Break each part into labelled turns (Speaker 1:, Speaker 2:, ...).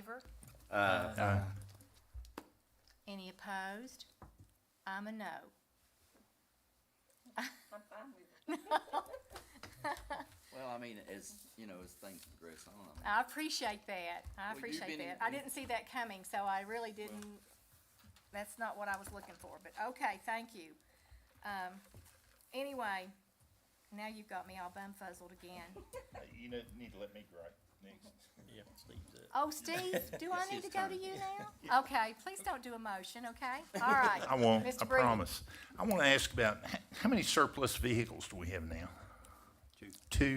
Speaker 1: favor?
Speaker 2: Uh,
Speaker 1: Any opposed? I'm a no.
Speaker 3: Well, I mean, as, you know, as things progress on, I mean,
Speaker 1: I appreciate that. I
Speaker 3: you've
Speaker 1: appreciate
Speaker 3: been
Speaker 1: that.
Speaker 3: in-
Speaker 1: I didn't see that coming, so I really didn't, that's not what I was looking for, but okay, thank you. Um, anyway, now you've got me all bumfuzzled again.
Speaker 2: You know, need to let me gripe next.
Speaker 4: Yeah, Steve's it.
Speaker 1: Oh, Steve, do I
Speaker 3: It's
Speaker 1: need
Speaker 3: his
Speaker 1: to go to
Speaker 3: turn.
Speaker 1: you now? Okay, please don't do a motion, okay? All right.
Speaker 2: I won't,
Speaker 1: Mr.
Speaker 2: I
Speaker 1: Breeden.
Speaker 2: promise. I want to ask about, h- how many surplus vehicles do we have now?
Speaker 3: Two.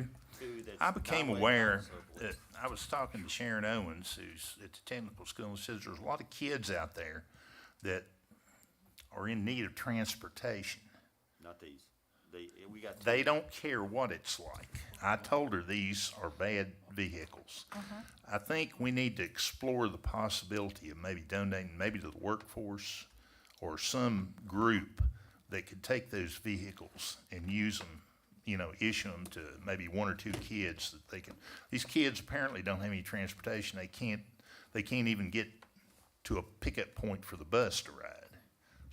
Speaker 2: Two?
Speaker 3: two that's
Speaker 2: I became
Speaker 3: highway
Speaker 2: aware
Speaker 3: cars, so forth.
Speaker 2: that, I was talking to Sharon Owens, who's at the technical school, and says there's a lot of kids out there that are in need of transportation.
Speaker 3: Not these. They, we got two.
Speaker 2: They don't care what it's like. I told her these are bad vehicles. I think we need to explore the possibility of maybe donating, maybe to the workforce or some group that could take those vehicles and use them, you know, issue them to maybe one or two kids that they can. These kids apparently don't have any transportation. They can't, they can't even get to a pickup point for the bus to ride.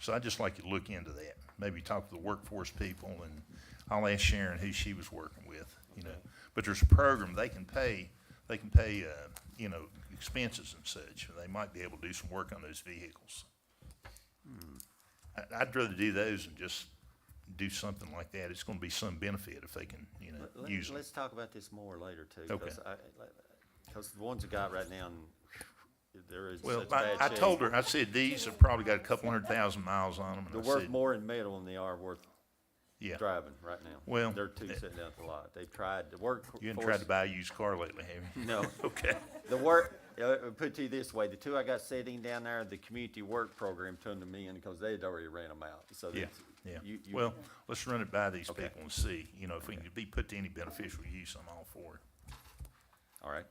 Speaker 2: So I'd just like you to look into that. Maybe talk to the workforce people and I'll ask Sharon who she was working with, you know. But there's a program, they can pay, they can pay, uh, you know, expenses and such. They might be able to do some work on those vehicles.
Speaker 5: Hmm.
Speaker 2: I, I'd rather do those than just do something like that. It's gonna be some benefit if they can, you
Speaker 5: Let-
Speaker 2: know,
Speaker 5: let-
Speaker 2: use it.
Speaker 5: Let's talk about this more later too,
Speaker 2: Okay.
Speaker 5: because I, because the ones we got right now, there is
Speaker 2: Well,
Speaker 5: such
Speaker 2: I,
Speaker 5: bad
Speaker 2: I
Speaker 5: shape.
Speaker 2: told her, I said, these have probably got a couple hundred thousand miles on them. and
Speaker 5: They're
Speaker 2: I
Speaker 5: worth
Speaker 2: said,
Speaker 5: more in metal than they are worth
Speaker 2: Yeah,
Speaker 5: driving right now.
Speaker 2: Well,
Speaker 5: They're two
Speaker 2: eh.
Speaker 5: sitting out the lot. They've tried, the work.
Speaker 2: you haven't tried to buy a used car lately, have you?
Speaker 5: No,
Speaker 2: Okay.
Speaker 5: the work, uh, uh, put it to you this way, the two I got sitting down there, the community work program turned them in because they'd already ran them out, so.
Speaker 2: Yeah,
Speaker 5: that's-
Speaker 2: yeah.
Speaker 5: you- you-
Speaker 2: Well, let's run it by these
Speaker 5: Okay.
Speaker 2: people and see, you know, if we can be put to any beneficial use, I'm all for it.
Speaker 5: All right,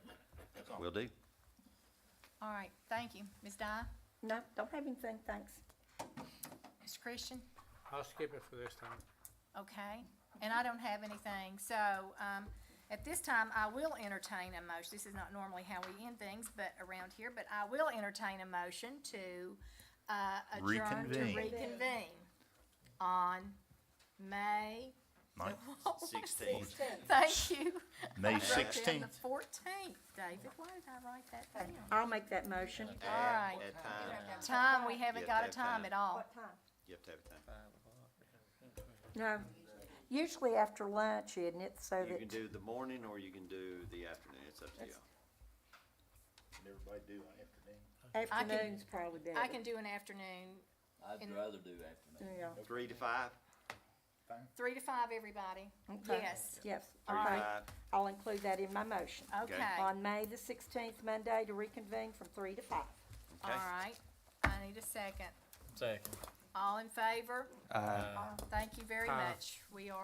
Speaker 5: will do.
Speaker 1: All right, thank you. Ms. Dye,
Speaker 6: No, don't have anything, thanks.
Speaker 1: Mr. Christian?
Speaker 7: I'll skip it for this time.
Speaker 1: Okay, and I don't have anything, so, um, at this time, I will entertain a motion, this is not normally how we end things, but around here, but I will entertain a motion to, uh, adjourn to
Speaker 2: Reconvene.
Speaker 1: reconvene on May,
Speaker 2: Mike,
Speaker 3: Sixteen.
Speaker 1: thank you.
Speaker 2: May
Speaker 1: Then the
Speaker 2: sixteenth,
Speaker 1: fourteenth, David, why did I write that down?
Speaker 6: I'll make that motion.
Speaker 1: All right,
Speaker 3: At time,
Speaker 1: time, we haven't
Speaker 3: Yeah,
Speaker 1: got a
Speaker 3: that
Speaker 1: time
Speaker 3: time.
Speaker 1: at all,
Speaker 6: time?
Speaker 3: you have to have a time.
Speaker 6: No, usually after lunch, isn't it, so
Speaker 5: You can
Speaker 6: that,
Speaker 5: do the morning or you can do the afternoon, it's up to you.
Speaker 2: everybody do an afternoon?
Speaker 6: afternoon's probably better.
Speaker 1: I can do an afternoon,
Speaker 3: I'd
Speaker 1: And-
Speaker 3: rather do afternoon.
Speaker 6: Yeah,
Speaker 5: Three to five,
Speaker 1: three to five, everybody,
Speaker 6: Okay.
Speaker 1: yes,
Speaker 6: yes,
Speaker 5: three to
Speaker 6: okay.
Speaker 5: five.
Speaker 6: I'll include that in my motion.
Speaker 1: okay.
Speaker 6: On May the sixteenth, Monday, to reconvene from three to five.
Speaker 1: All
Speaker 5: Okay.
Speaker 1: right, I need a second.
Speaker 4: Second.
Speaker 1: All in favor?
Speaker 4: Uh,
Speaker 1: Thank you very
Speaker 7: Aye.
Speaker 1: much. We are.